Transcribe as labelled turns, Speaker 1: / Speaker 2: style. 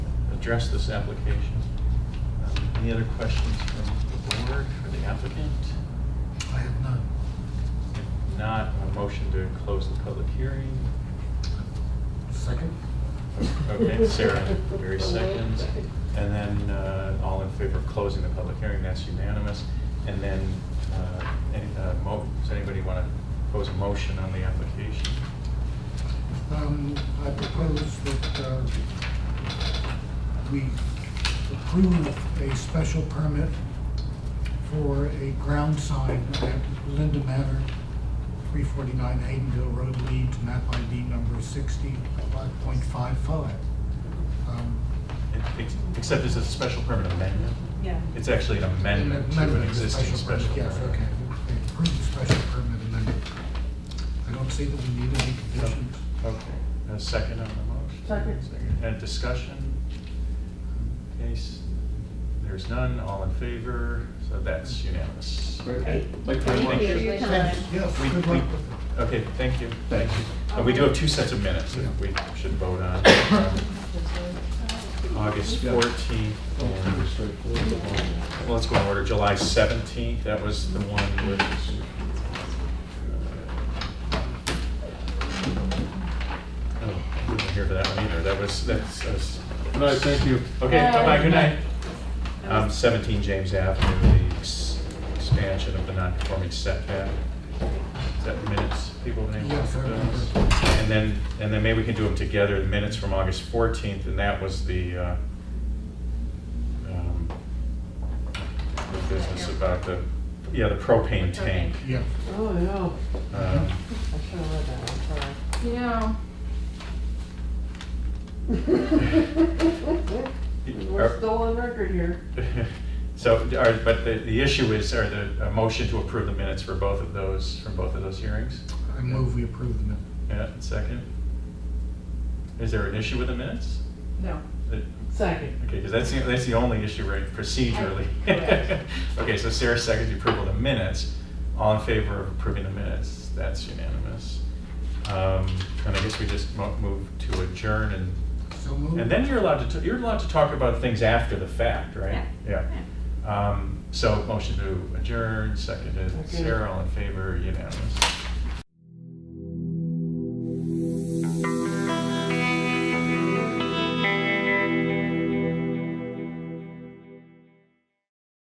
Speaker 1: address this application. Um, Any other questions from the board for the applicant?
Speaker 2: I have none.
Speaker 1: If not, a motion to close the public hearing.
Speaker 2: Second?
Speaker 1: Okay, Sarah, very seconds. And then, uh, all in favor of closing the public hearing, that's unanimous. And then, uh, any, uh, mo, does anybody want to pose a motion on the application?
Speaker 2: Um, I propose that, uh, we approve a special permit for a ground sign at Linda Manor, three forty-nine Haydenville Road, Leeds, map ID number sixty, five point five five. Um,
Speaker 1: Ex- Except it's a special permit amendment.
Speaker 3: Yeah.
Speaker 1: It's actually an amendment to an existing special permit.
Speaker 2: Yes, okay, we approve the special permit amendment. I don't see that we need any conditions.
Speaker 1: A second on the motion?
Speaker 3: Second.
Speaker 1: And discussion? Case, there's none, all in favor, so that's unanimous.
Speaker 4: Okay.
Speaker 1: Like very much.
Speaker 3: Thank you for your time.
Speaker 2: Yes,
Speaker 1: We-
Speaker 2: good
Speaker 1: we- uh,
Speaker 2: luck with it.
Speaker 1: Okay, thank you, thank you. Uh, We do have two sets of minutes that we should vote on. August 14th. and- well, Let's go in order, July 17th, that was the one with. Oh, I wasn't here for that one either, that was, that's. that's-
Speaker 4: No, thank you.
Speaker 1: Okay, bye-bye, good night.
Speaker 3: That
Speaker 1: Um,
Speaker 3: was-
Speaker 1: 17 James Avenue, the ex- expansion of the non-conforming setback. Is that the minutes, people name?
Speaker 2: Yes, I remember.
Speaker 1: And then, and then maybe we can do them together, the minutes from August 14th, and that was the, uh, um, the business about the, yeah, the propane tank.
Speaker 2: Yeah.
Speaker 5: Oh, no.
Speaker 1: Um,
Speaker 5: I should have read that one,
Speaker 3: You know,
Speaker 5: sorry. We're
Speaker 1: are-
Speaker 5: still on record here.
Speaker 1: So, are- but the, the issue is, are the, a motion to approve the minutes for both of those, from both of those hearings?
Speaker 2: I move we approve the minute.
Speaker 1: Yeah, second. Is there an issue with the minutes?
Speaker 3: no.
Speaker 1: That-
Speaker 5: Second.
Speaker 1: Okay, because that's, the- that's the only issue, right, procedurally?
Speaker 3: Correct.
Speaker 1: Okay, so Sarah seconds the approval of the minutes. All in favor of approving the minutes? That's unanimous. Um, And I guess we just mo- move to adjourn and,
Speaker 2: So moved.
Speaker 1: and then you're allowed to, t- you're allowed to talk about things after the fact, right? Yeah. Um, So motion to adjourn, seconded.
Speaker 5: Okay.
Speaker 1: Sarah, all in favor, unanimous.